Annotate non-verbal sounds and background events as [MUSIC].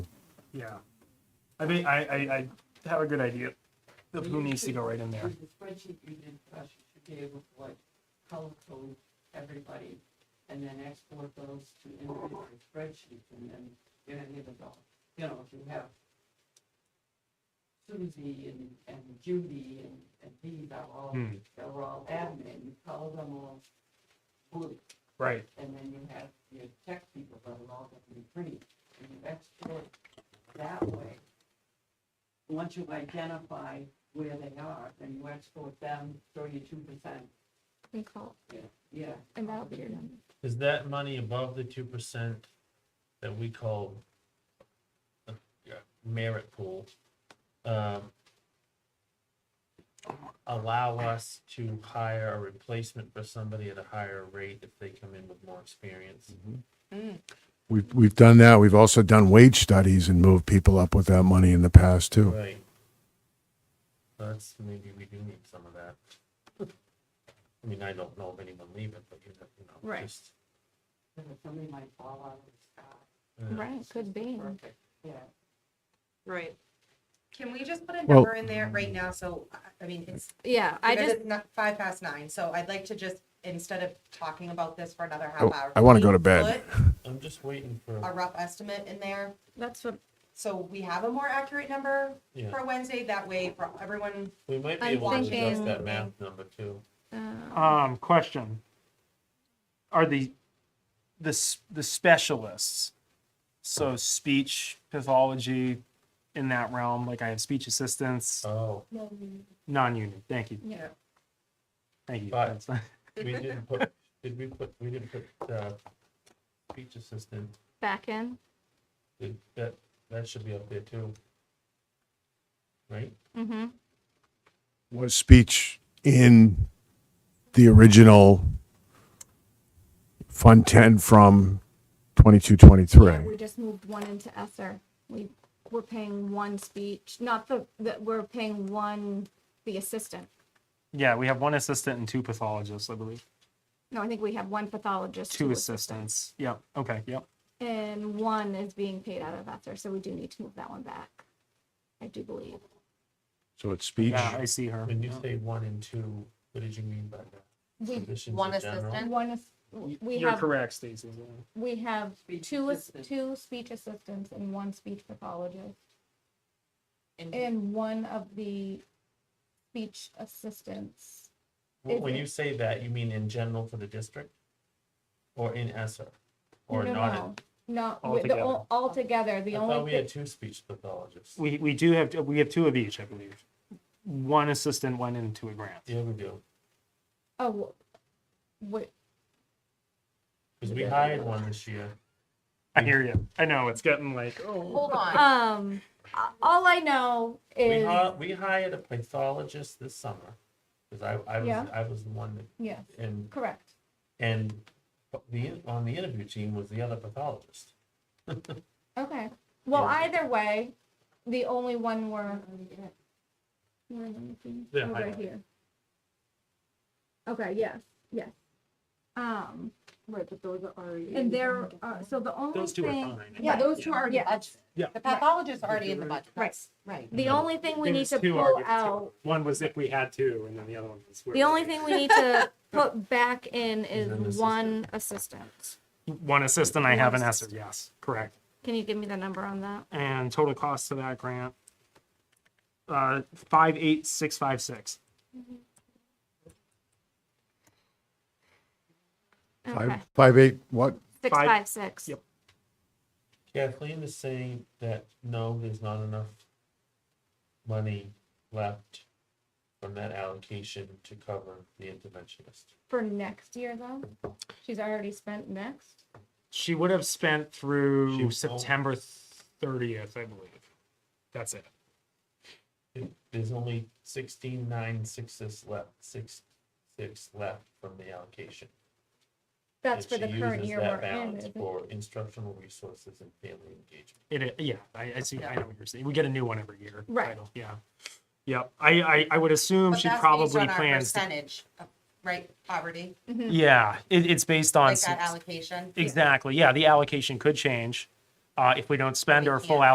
Yeah. I think I, I, I have a good idea of who You needs to could- go right in there. With the spreadsheet you did for us, you should be able to like color code everybody and then export those to individual spreadsheets and then you're gonna give it all. You know, if you have Susie and, and Judy and, and these are all, Hmm. they're all admin, you color them all blue. Right. And then you have your tech people that are all gonna be green and you export that way. Once you identify where they are, then you export them thirty-two percent, We call, yeah. and that'll be your number. Is that money above the two percent that we call a merit pool? um, Allow us to hire a replacement for somebody at a higher rate if they come in with more experience? Mm. We've, we've done that. We've also done wage studies and moved people up with that money in the past too. Right. That's, maybe we do need some of that. I mean, I don't know of anyone leaving, but you know, you know. Right. just, So that Somebody might fall out of the sky, uh, Right, could be. perfect, yeah. Right. Can we just put a Well- number in there right now? So, I- I mean, it's, Yeah, I because just, it's not five past nine, so I'd like to just, instead of talking about this for another half Oh, hour. I wanna go please to bed. put I'm just waiting for. A rough estimate in there, that's what, so we have a more accurate number Yeah. for Wednesday, that way for everyone, We might be I'm able to adjust thinking- that math number too. uh, Um, question. Are the, the, s- the specialists, so speech pathology in that realm, like I have speech assistants, Oh, non-union. Thank you. Yeah. Thank you. But- That's fine. [LAUGHS] [LAUGHS] we didn't put, did we put, we didn't put, uh, speech assistant, back in. Did- that, that should be up there too. Right? Mm-hmm. Was speech in the original Fund 10 from 22, 23? We just moved one into Esser. We, we're paying one speech, not the, that we're paying one, the assistant. Yeah, we have one assistant and two pathologists, I believe. No, I think we have one pathologist. Two assistants. Yep. Okay. Yep. And one is being paid out of Esser, so we do need to move that one back. I do believe. So it's speech. Yeah, I see her. When you Yeah. say one and two, what did you mean by that? We, Positions one in general? assistant? Mm-hmm. one is, Y- we You're have, correct, Stacy. we have Speech two, as- assistant. two speech assistants and one speech pathologist. And And one of the speech assistants. Wh- Is When it- you say that, you mean in general for the district? Or in ESER? Or No, not? no, in- No, wi- the, Altogether. o- altogether, the I thought we only, had thi- two speech pathologists. We we do have we have two of each, I believe. One assistant went into a grant. Yeah, we do. oh, wait, Cause we hired one this year. I hear you. I know it's getting like oh hold Uh, on, um, a- all I know We is, hired, we hired a pathologist this summer, because I, I Yeah. was, I was the one that, yes, and, correct. and the, on the interview team was the other pathologist. Okay, well, Yeah. either way, the only one we're, where am I looking? Yeah, Oh, I right know. here. Okay, yes, yes. Um, Right, but those are already. and there, are so the only those two are thing, fine. yeah, those two are in the Yeah. budget. Yeah. The pathologist already in the budget. Right. Right. the only thing we need There's to two pull arguments here. out One was if we had two, and then the other one was where The we- only thing we need to put back in an is assistant. one assistant. one assistant I One have an ESSER. assistant. Yes, correct. Can you give me the number on that? And total cost to that grant, uh, five eight six five six. Okay, Five, five, eight, what? six, five- five, six. yep. Kathleen is saying that, no, there's not enough money left from that allocation to cover the interventionist. For next year though, she's already spent next. She would have spent She through won't. September thirtieth, I believe. That's it. It- There's only sixteen nine sixes left, six, six left from the allocation. That's And for the she current uses year that we're in. balance isn't it? For instructional resources and family engagement. It is, yeah, I, I see, I know what you're saying. We get a new one every year. Right. title, Yeah. Yep. I, I, I would assume But she that's based probably on our plans. to- Percentage, of- right, poverty, Yeah, it, it's based on, like that s- allocation. exactly. Yeah, the allocation could change. Uh, if we don't spend We our full can't.